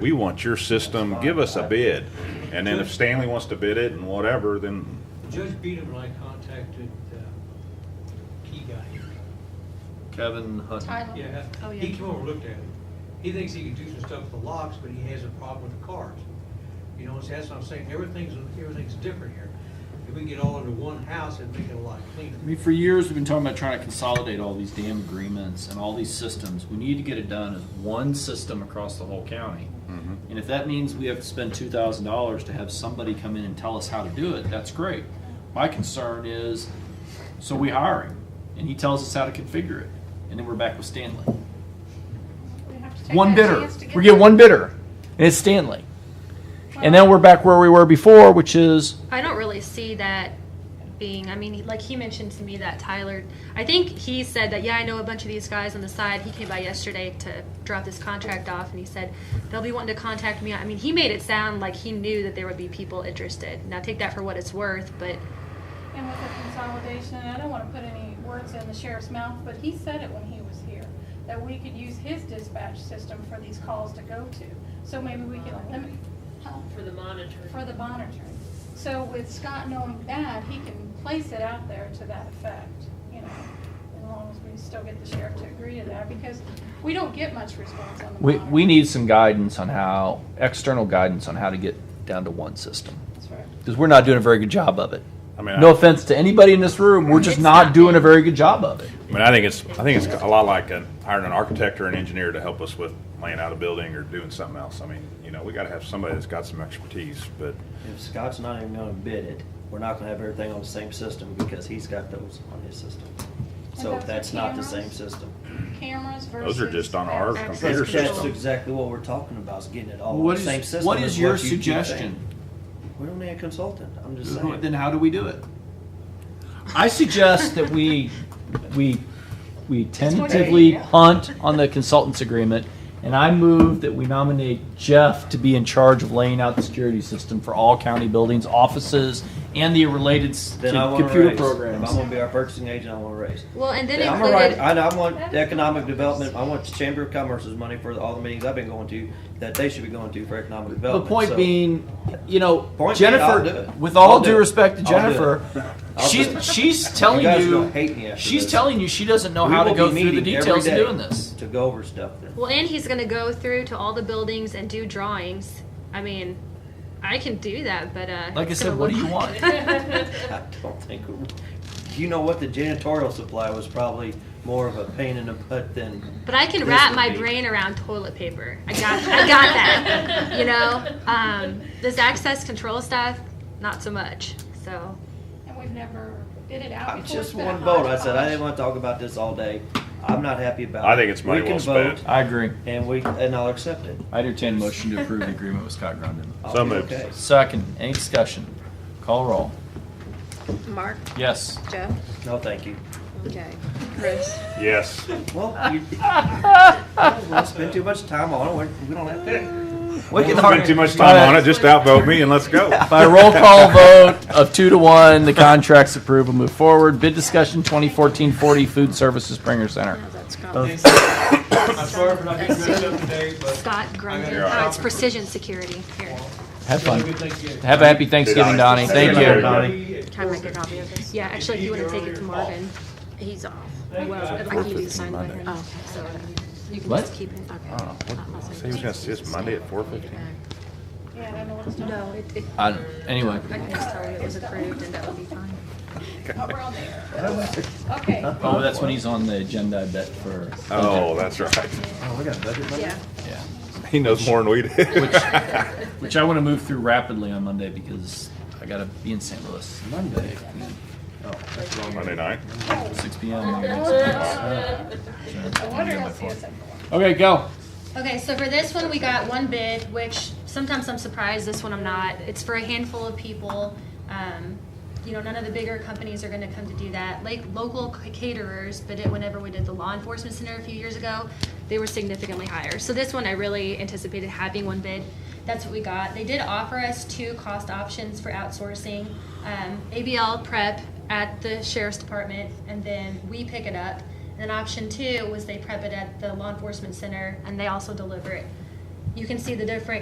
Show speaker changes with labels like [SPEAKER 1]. [SPEAKER 1] we want your system, give us a bid. And then if Stanley wants to bid it and whatever, then,
[SPEAKER 2] Judge Beadham and I contacted uh, key guy.
[SPEAKER 3] Kevin Hutton.
[SPEAKER 4] Tyler.
[SPEAKER 2] Yeah,
[SPEAKER 4] Oh, yeah.
[SPEAKER 2] he came over and looked at it. He thinks he can do some stuff with the locks, but he has a problem with the cars. You know, so that's what I'm saying, everything's, everything's different here. If we get all under one house, it'd make it a lot cleaner.
[SPEAKER 5] I mean, for years, we've been talking about trying to consolidate all these damn agreements and all these systems. We need to get it done as one system across the whole county. And if that means we have to spend two thousand dollars to have somebody come in and tell us how to do it, that's great. My concern is, so we hire him, and he tells us how to configure it, and then we're back with Stanley.
[SPEAKER 4] We have to take
[SPEAKER 5] One
[SPEAKER 4] that
[SPEAKER 5] bidder.
[SPEAKER 4] chance to
[SPEAKER 5] We get
[SPEAKER 4] that.
[SPEAKER 5] one bidder, and it's Stanley. And then
[SPEAKER 4] Well,
[SPEAKER 5] we're back where we were before, which is,
[SPEAKER 4] I don't really see that being, I mean, he- like he mentioned to me that Tyler, I think he said that, yeah, I know a bunch of these guys on the side. He came by yesterday to drop this contract off and he said, they'll be wanting to contact me. I mean, he made it sound like he knew that there would be people interested. Now take that for what it's worth, but
[SPEAKER 6] And with the consolidation, and I don't want to put any words in the sheriff's mouth, but he said it when he was here, that we could use his dispatch system for these calls to go to. So maybe we can limit, huh,
[SPEAKER 7] For the monitoring.
[SPEAKER 6] for the monitoring. So with Scott knowing that, he can place it out there to that effect, you know, as long as we still get the sheriff to agree to that, because we don't get much response on the
[SPEAKER 5] we,
[SPEAKER 6] monitoring.
[SPEAKER 5] we need some guidance on how, external guidance on how to get down to one system.
[SPEAKER 6] That's right.
[SPEAKER 5] because we're not doing a very good job of it.
[SPEAKER 1] I mean.
[SPEAKER 5] No
[SPEAKER 1] I-
[SPEAKER 5] offense to anybody in this room, we're just
[SPEAKER 4] It's
[SPEAKER 5] not
[SPEAKER 4] not
[SPEAKER 5] doing a
[SPEAKER 4] big.
[SPEAKER 5] very good job of it.
[SPEAKER 1] I mean, I think it's, I think it's a lot like an, hiring an architect or an engineer to help us with laying out a building or doing something else. I mean, you know, we gotta have somebody that's got some expertise, but
[SPEAKER 8] If Scott's not even gonna bid it, we're not gonna have everything on the same system because he's got those on his system. So
[SPEAKER 6] And
[SPEAKER 8] that's
[SPEAKER 6] those are
[SPEAKER 8] not the same
[SPEAKER 6] cameras?
[SPEAKER 8] system.
[SPEAKER 6] Cameras versus.
[SPEAKER 1] those are just on our
[SPEAKER 6] that.
[SPEAKER 4] Access
[SPEAKER 1] computer
[SPEAKER 4] control.
[SPEAKER 8] That's
[SPEAKER 1] system.
[SPEAKER 8] exactly what we're talking about, is getting it all on
[SPEAKER 5] What
[SPEAKER 8] the same
[SPEAKER 5] is,
[SPEAKER 8] system.
[SPEAKER 5] what is your
[SPEAKER 8] you keep
[SPEAKER 5] suggestion?
[SPEAKER 8] saying. We don't need a consultant, I'm just
[SPEAKER 5] Then
[SPEAKER 8] saying.
[SPEAKER 5] how do we do it? I suggest that we, we, we tentatively punt on the consultants agreement, and I move that we nominate Jeff to be in charge of laying out the security system for all county buildings, offices, and the related s-
[SPEAKER 8] Then I want a
[SPEAKER 5] computer
[SPEAKER 8] raise. If I'm
[SPEAKER 5] programs.
[SPEAKER 8] gonna be our purchasing agent, I want a raise.
[SPEAKER 4] well, and then
[SPEAKER 8] I'm a right,
[SPEAKER 4] included,
[SPEAKER 8] I, I want the economic development, I want the Chamber of Commerce's money for all the meetings I've been going to, that they should be going to for economic
[SPEAKER 5] The
[SPEAKER 8] development.
[SPEAKER 5] point
[SPEAKER 8] So,
[SPEAKER 5] being, you know,
[SPEAKER 8] Point being, I'll do
[SPEAKER 5] Jennifer,
[SPEAKER 8] it.
[SPEAKER 5] with
[SPEAKER 8] I'll
[SPEAKER 5] all
[SPEAKER 8] do
[SPEAKER 5] due
[SPEAKER 8] it.
[SPEAKER 5] respect to
[SPEAKER 8] I'll do it.
[SPEAKER 5] Jennifer,
[SPEAKER 8] I'll do
[SPEAKER 5] she's
[SPEAKER 8] it.
[SPEAKER 5] she's telling
[SPEAKER 8] guys are
[SPEAKER 5] you,
[SPEAKER 8] gonna hate me after
[SPEAKER 5] she's
[SPEAKER 8] this.
[SPEAKER 5] telling you she doesn't know
[SPEAKER 8] We
[SPEAKER 5] how to
[SPEAKER 8] will
[SPEAKER 5] go
[SPEAKER 8] be
[SPEAKER 5] through the
[SPEAKER 8] meeting every
[SPEAKER 5] details of
[SPEAKER 8] day
[SPEAKER 5] doing this.
[SPEAKER 8] To go over stuff then.
[SPEAKER 4] well, and he's going to go through to all the buildings and do drawings. I mean, I can do that, but, uh.
[SPEAKER 5] Like I
[SPEAKER 4] it's
[SPEAKER 5] said,
[SPEAKER 4] gonna
[SPEAKER 5] what do
[SPEAKER 4] look
[SPEAKER 5] you want?
[SPEAKER 8] I don't think. You know what? The janitorial supply was probably more of a pain in the butt than.
[SPEAKER 4] But I can
[SPEAKER 8] This
[SPEAKER 4] wrap
[SPEAKER 8] would
[SPEAKER 4] my
[SPEAKER 8] be-
[SPEAKER 4] brain around toilet paper. I got, I got that. You know, um, this access control stuff, not so much. So,
[SPEAKER 6] And we've never bid it out
[SPEAKER 8] I'm
[SPEAKER 6] before.
[SPEAKER 8] just one vote. I said I didn't want to talk about this all day. I'm not happy about it.
[SPEAKER 1] I think it's money
[SPEAKER 8] We can
[SPEAKER 1] well spent.
[SPEAKER 8] vote,
[SPEAKER 5] I agree.
[SPEAKER 8] And we and I'll accept it.
[SPEAKER 5] I entertain a motion to approve the agreement with Scott Grundon.
[SPEAKER 8] I'll
[SPEAKER 1] So
[SPEAKER 8] be
[SPEAKER 1] moved.
[SPEAKER 8] okay.
[SPEAKER 5] Second, any discussion? Call roll.
[SPEAKER 7] Mark,
[SPEAKER 5] Yes.
[SPEAKER 7] Jeff,
[SPEAKER 8] No, thank you.
[SPEAKER 7] okay, Chris,
[SPEAKER 1] Yes.
[SPEAKER 8] Well, you. we'll spend too much time on it. We- We don't have to. We
[SPEAKER 1] Don't
[SPEAKER 8] can
[SPEAKER 1] spend too much time on it, just outvote me and let's go.
[SPEAKER 5] By roll call vote of two to one, the contract's approved. We'll move forward. Bid discussion 2014-40 Food Services Springer Center.
[SPEAKER 7] no, that's gone.
[SPEAKER 2] I'm sorry for not getting dressed up today, but.
[SPEAKER 4] Scott Grundy.
[SPEAKER 2] You're all right.
[SPEAKER 4] Oh, it's precision security. Here,
[SPEAKER 2] Have
[SPEAKER 5] Have
[SPEAKER 2] a
[SPEAKER 5] fun.
[SPEAKER 2] good Thanksgiving.
[SPEAKER 5] Have a happy Thanksgiving, Donnie. Thank you.
[SPEAKER 7] Can I make a copy of this?
[SPEAKER 4] yeah, actually, if you want to take it to Marvin,
[SPEAKER 7] He's off.
[SPEAKER 4] well, if I give you the sign by him,
[SPEAKER 7] Oh,
[SPEAKER 4] so um, you can
[SPEAKER 5] What?
[SPEAKER 4] just keep it.
[SPEAKER 1] I don't know. What, say he was gonna see us Monday at four fifteen?
[SPEAKER 6] Yeah, I don't know what it's talking
[SPEAKER 4] No, it, it,
[SPEAKER 5] I don't- Uh, Anyway.
[SPEAKER 4] I can just tell you it was approved and that would be fine.
[SPEAKER 6] about. Around there. Okay.
[SPEAKER 5] Oh, that's when he's on the agenda, I bet, for.
[SPEAKER 1] Oh, that's right.
[SPEAKER 8] Oh, we got budget money.
[SPEAKER 4] Yeah.
[SPEAKER 5] Yeah.
[SPEAKER 1] He knows more than we do.
[SPEAKER 5] Which I want to move through rapidly on Monday because I got to be in St. Louis. Monday.
[SPEAKER 1] Monday night.
[SPEAKER 5] 6 p.m.
[SPEAKER 6] I wonder how CSM.
[SPEAKER 5] Okay, go.
[SPEAKER 4] Okay, so for this one, we got one bid, which sometimes I'm surprised, this one I'm not. It's for a handful of people. Um, You know, none of the bigger companies are gonna come to do that. Like, local caterers bid it whenever we did the law enforcement center a few years ago. They were significantly higher. So this one, I really anticipated having one bid. That's what we got. They did offer us two cost options for outsourcing. Um, ABL prep at the sheriff's department, and then we pick it up. And then option two was they prep it at the law enforcement center and they also deliver it. you can see the different